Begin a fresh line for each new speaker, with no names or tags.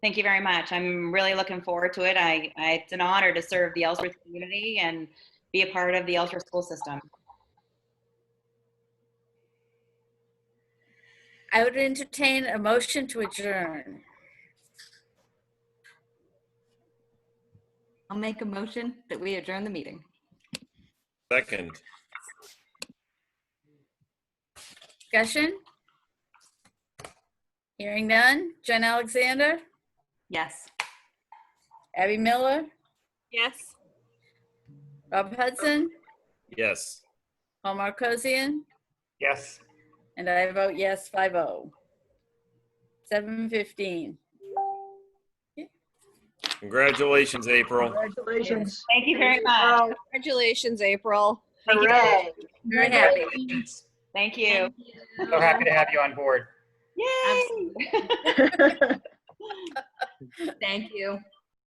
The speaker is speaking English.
Thank you very much. I'm really looking forward to it. I, I, it's an honor to serve the Ellsworth community and be a part of the Ellsworth school system.
I would entertain a motion to adjourn.
I'll make a motion that we adjourn the meeting.
Second,
Discussion? Hearing none. Jen Alexander,
Yes.
Abby Miller,
Yes.
Rob Hudson,
yes.
Omar Kosian,
Yes.
and I vote yes, oh. 5-0. 7:15.
Congratulations, April.
Congratulations.
Thank you very much.
Congratulations, April.
Thank you.
Hooray.
Very happy.
Thank you.
So happy to have you on board.
Yay!
Thank you.